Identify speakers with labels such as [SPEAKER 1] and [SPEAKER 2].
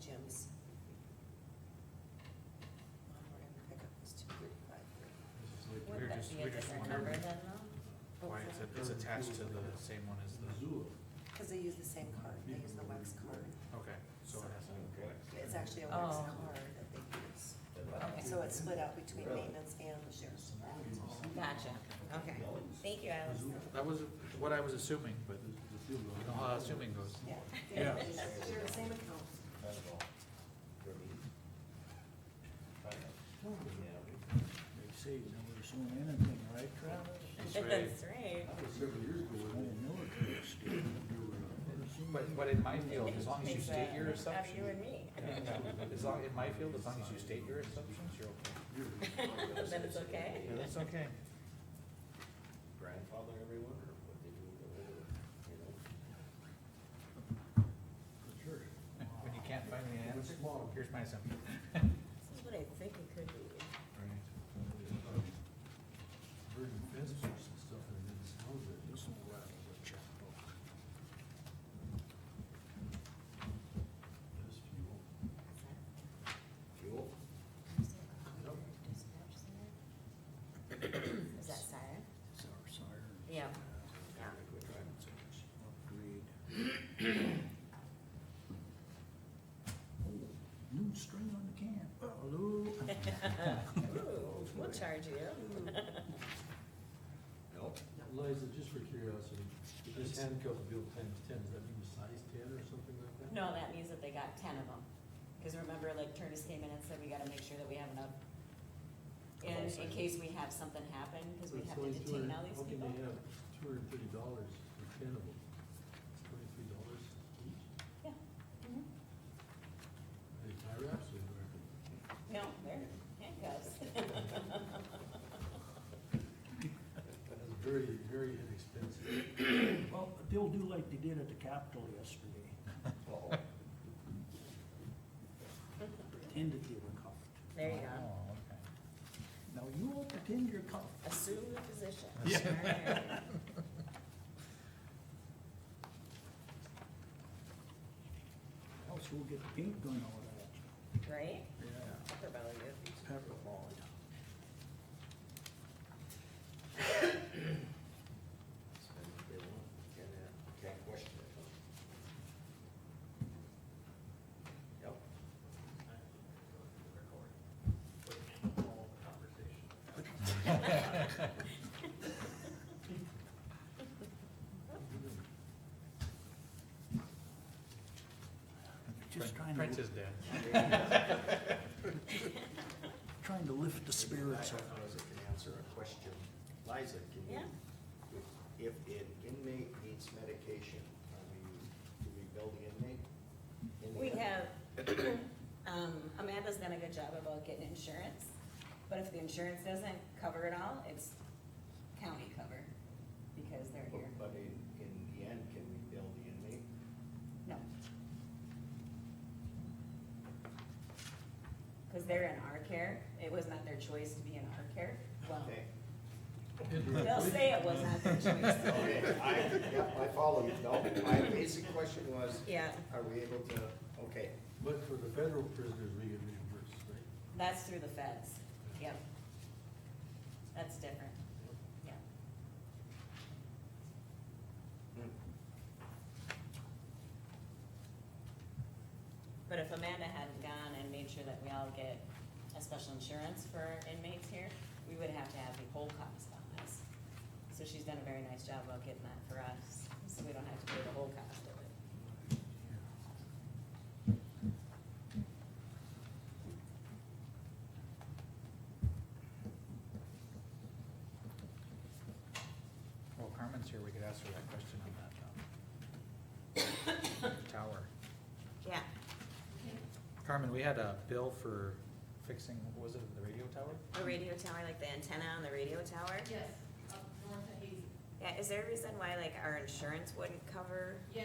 [SPEAKER 1] Jim's. Well, we're gonna pick up this 235.
[SPEAKER 2] We're
[SPEAKER 3] Would that
[SPEAKER 2] just-
[SPEAKER 3] be a
[SPEAKER 2] we're just
[SPEAKER 3] different number
[SPEAKER 2] wondering
[SPEAKER 3] then though?
[SPEAKER 1] Oh,
[SPEAKER 2] Why it's, it's attached to the same one as the,
[SPEAKER 1] Cause they use the same card, they use the wax card.
[SPEAKER 2] okay, so it has,
[SPEAKER 1] It's actually a wax
[SPEAKER 3] Oh.
[SPEAKER 1] card that they use.
[SPEAKER 3] Okay.
[SPEAKER 1] So it's split out between maintenance and the sheriff's.
[SPEAKER 3] Gotcha, okay. Thank you, Alice.
[SPEAKER 2] that was what I was assuming, but you know how assuming goes.
[SPEAKER 1] Yeah.
[SPEAKER 4] Yeah.
[SPEAKER 1] They're the same account.
[SPEAKER 4] They say you never assume anything, right Travis?
[SPEAKER 2] That's
[SPEAKER 3] That's right.
[SPEAKER 4] I didn't know it was stupid. Never assume
[SPEAKER 2] But, but in my field, as long as you
[SPEAKER 3] Makes
[SPEAKER 2] state
[SPEAKER 3] a-
[SPEAKER 2] your
[SPEAKER 3] Out of you and
[SPEAKER 2] assumption,
[SPEAKER 3] me.
[SPEAKER 2] as long, in my field, as long as you state your assumptions, you're okay.
[SPEAKER 3] Then it's okay.
[SPEAKER 2] That's okay.
[SPEAKER 5] grandfather everyone or what they do with their older, you know?
[SPEAKER 4] For sure.
[SPEAKER 2] When you can't find the answer, oh, here's my assumption.
[SPEAKER 3] This is what I think it could be.
[SPEAKER 4] Burden fences and stuff and then it's held there. This will rattle the checkbook. This fuel.
[SPEAKER 5] Fuel?
[SPEAKER 3] Is that siren?
[SPEAKER 4] It's our siren.
[SPEAKER 3] Yeah.
[SPEAKER 5] Yeah. Good drive.
[SPEAKER 4] Upgrade. Oh, New string on the can. Hello.
[SPEAKER 3] Ooh, we'll charge you.
[SPEAKER 5] Nope.
[SPEAKER 6] Liza, just for curiosity, this handcuff bill times ten, does that mean a size ten or something like that?
[SPEAKER 3] No, that means that they got ten of them. Cause remember, like Curtis came in and said, we gotta make sure that we have enough in, in case we have something happen, cause we
[SPEAKER 6] That's
[SPEAKER 3] have to
[SPEAKER 6] only two
[SPEAKER 3] detain
[SPEAKER 6] hundred-
[SPEAKER 3] all these
[SPEAKER 6] How can
[SPEAKER 3] people.
[SPEAKER 6] they have two hundred and thirty dollars for ten of them? It's twenty-three dollars each?
[SPEAKER 3] Yeah.
[SPEAKER 6] Are
[SPEAKER 3] Mhm.
[SPEAKER 6] they tie wraps or American?
[SPEAKER 3] No, they're handcuffs.
[SPEAKER 6] That's very, very inexpensive.
[SPEAKER 4] Well, they'll do like they did at the Capitol yesterday,
[SPEAKER 5] Uh-oh.
[SPEAKER 4] pretended they were cuffed.
[SPEAKER 3] There you go.
[SPEAKER 2] Oh,
[SPEAKER 4] Now you all pretend you're cuffed.
[SPEAKER 3] Assume the position.
[SPEAKER 4] Else we'll get the paint gun out of that.
[SPEAKER 3] Right?
[SPEAKER 4] Yeah.
[SPEAKER 3] They're about to get-
[SPEAKER 4] Pepper ball.
[SPEAKER 5] Spend what they want. Can't, uh, can't question it. huh? Yep.
[SPEAKER 4] Just trying
[SPEAKER 2] Prince
[SPEAKER 4] to,
[SPEAKER 2] is dead.
[SPEAKER 4] trying to lift the spirits up.
[SPEAKER 5] Liza can answer a question. Liza, can you?
[SPEAKER 3] Yeah.
[SPEAKER 5] If an inmate needs medication, are we, do we bill the inmate? In the
[SPEAKER 3] We
[SPEAKER 5] end?
[SPEAKER 3] have, um, Amanda's done a good job about getting insurance, but if the insurance doesn't cover it all, it's county cover, because they're here.
[SPEAKER 5] But- But in, in the end, can we bill the inmate?
[SPEAKER 3] Oh. No. Cause they're in our care, it was not their choice to be in our care, well,
[SPEAKER 5] Okay.
[SPEAKER 3] they'll say it was not their choice.
[SPEAKER 5] Okay, I, yeah, I follow you, no, my basic question was,
[SPEAKER 3] Yeah,
[SPEAKER 5] are we able to, okay,
[SPEAKER 6] But for the federal prisoners, we get reimbursed, right?
[SPEAKER 3] that's through the feds, yep. That's different, yeah. But if Amanda hadn't gone and made sure that we all get a special insurance for our inmates here, we would have to have the whole cost on us. So she's done a very nice job of getting that for us, so we don't have to pay the whole cost of it.
[SPEAKER 2] Well, Carmen's here, we could ask her that question on that, um, tower.
[SPEAKER 3] Yeah.
[SPEAKER 2] Carmen, we had a bill for fixing, what was it the radio tower?
[SPEAKER 3] A radio tower, like the antenna on the radio tower?
[SPEAKER 7] Yes, up north of Hazy.
[SPEAKER 3] Yeah, is there a reason why like our insurance wouldn't cover?
[SPEAKER 7] Yeah,